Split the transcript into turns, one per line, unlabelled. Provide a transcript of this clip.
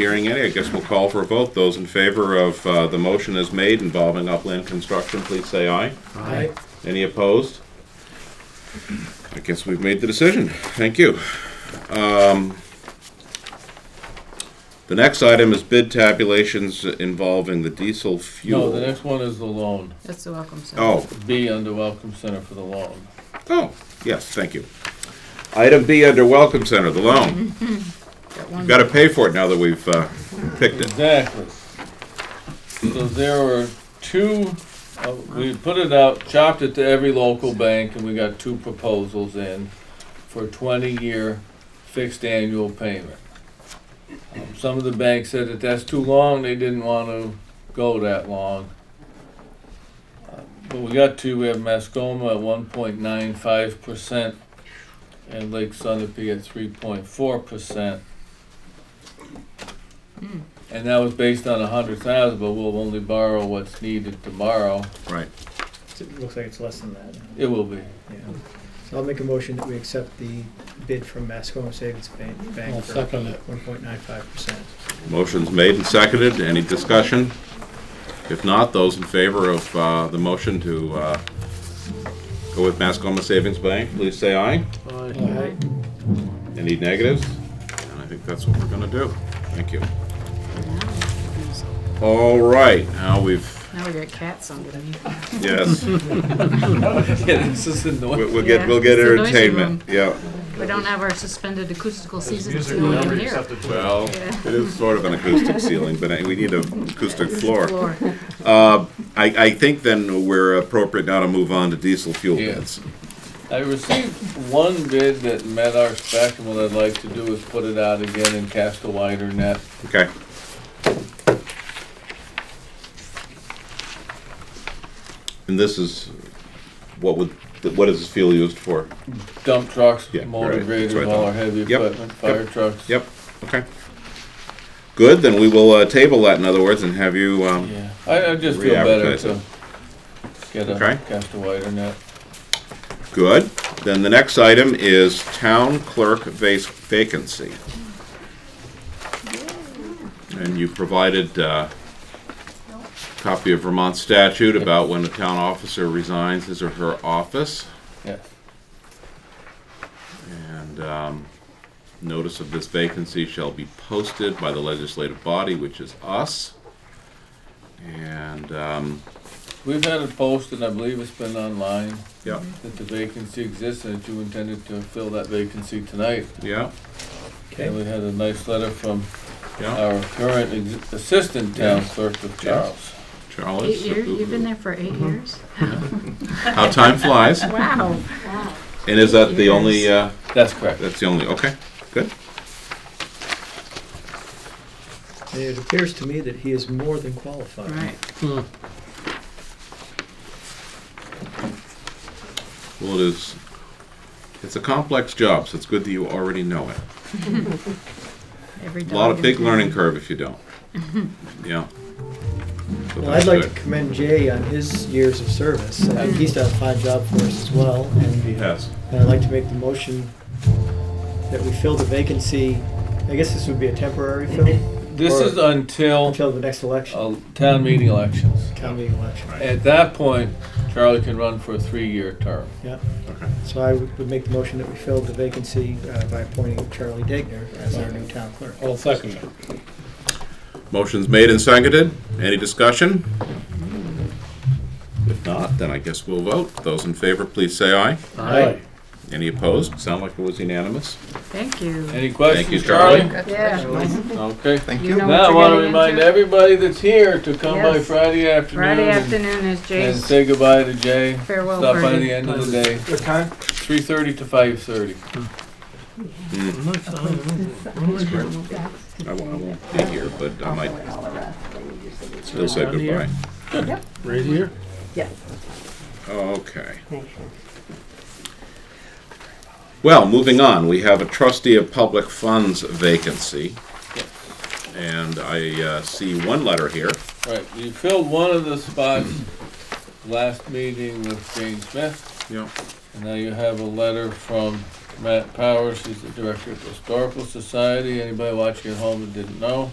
Hearing any, I guess we'll call for a vote. Those in favor of uh, the motion as made involving upland construction, please say aye.
Aye.
Any opposed? I guess we've made the decision. Thank you. Um, The next item is bid tabulations involving the diesel fuel.
No, the next one is the loan.
That's the welcome center.
Oh,
B under Welcome Center for the loan.
oh, yes, thank you. Item B under Welcome Center, the loan.
Got one.
Got to pay for it now that we've uh, picked it.
Exactly. So there were two, uh, we put it out, chopped it to every local bank, and we got two proposals in for twenty-year fixed annual payment. Um, Some of the banks said that that's too long, they didn't want to go that long. Uh, But we got two, we have Mascoma at one point nine five percent and Lake Sunapee at three point four percent. And that was based on a hundred thousand, but we'll only borrow what's needed tomorrow.
Right.
It looks like it's less than that.
It will be.
Yeah. So I'll make a motion that we accept the bid from Mascoma Savings Bank Bank for one point nine five percent.
Motion's made and seconded. Any discussion? If not, those in favor of uh, the motion to uh, go with Mascoma Savings Bank, please say aye. Any negatives? And I think that's what we're gonna do. Thank you. All right, now we've,
Now we got cats underneath.
yes, we-
Yeah, this is annoying.
we'll get, we'll get
Yeah, it's a noisy
entertainment. Yeah,
We don't have our suspended acoustical season,
Music
so we
whenever
can
you
hear.
have to do it.
well,
Yeah.
it is sort of an acoustic ceiling, but I- we need an acoustic floor.
Floor.
I, I think then we're appropriate now to move on to diesel fuel
Yeah.
bids.
I received one bid that met our spec, and what I'd like to do is put it out again and cast a wider net.
Okay, and this is, what would, what is this fuel used for?
Dump trucks,
Yeah, right,
motor
that's what I
graders, all
thought.
our heavy
Yep,
equipment, fire trucks.
Yep, okay. Good, then we will uh, table that, in other words, and have you, um,
Yeah, I, I just feel better
Re-advertise
to get
Okay.
a, cast a wider net.
good. Then the next item is town clerk vac- vacancy. And you provided uh, copy of Vermont statute about when a town officer resigns his or her office
Yeah,
and um, notice of this vacancy shall be posted by the legislative body, which is us. And, um,
we've had it posted, I believe it's been online,
yeah,
that the vacancy exists, and that you intended to fill that vacancy tonight.
yeah,
And
Okay,
we had a nice letter from
yeah.
Uh,
our current ex- assistant town clerk of Charles.
Charlotte.
Eight years, you've been there for eight years?
How time flies. And
Wow.
is that the only, uh,
That's correct.
that's the only, okay, good.
and it appears to me that he is more than qualified.
Right.
Well, it is, it's a complex job, so it's good that you already know it.
Every
A lot of
dog
big
in
learning
town.
curve if you don't. Yeah. So
Well,
that's
I'd like to
good.
commend Jay on his years of service. I think he's done a fine job for us as well.
He
And
has.
and I'd like to make the motion that we fill the vacancy. I guess this would be a temporary fill
This is until
until the next election,
uh, town meeting elections.
town meeting election.
At that point, Charlie can run for a three-year term.
Yeah.
Okay.
So I would would make the motion that we fill the vacancy uh, by appointing Charlie Degner as our new town clerk.
I'll second it.
Motion's made and seconded. Any discussion? If not, then I guess we'll vote. Those in favor, please say aye.
Aye.
Any opposed? Sound like it was unanimous?
Thank you.
Any questions?
Thank you, Charlie.
Yeah.
Okay.
Thank
You know
Now, I
what
want to
you're getting
remind
into.
everybody that's here to come by
Yes.
Friday afternoon.
Friday
and-
afternoon is
And
Jay's
say goodbye to Jay.
farewell
Stop by the
party.
end of the day. What time? Three-thirty to five-thirty.
I won't, I won't be here, but I might still say goodbye.
Right here?
Okay. Well, moving on, we have a trustee of public funds vacancy. And I uh, see one letter here.
Right, you filled one of the spots last meeting with Jane Smith.
Yeah.
And now you have a letter from Matt Powers, he's the director of the Historical Society, anybody watching at home that didn't know.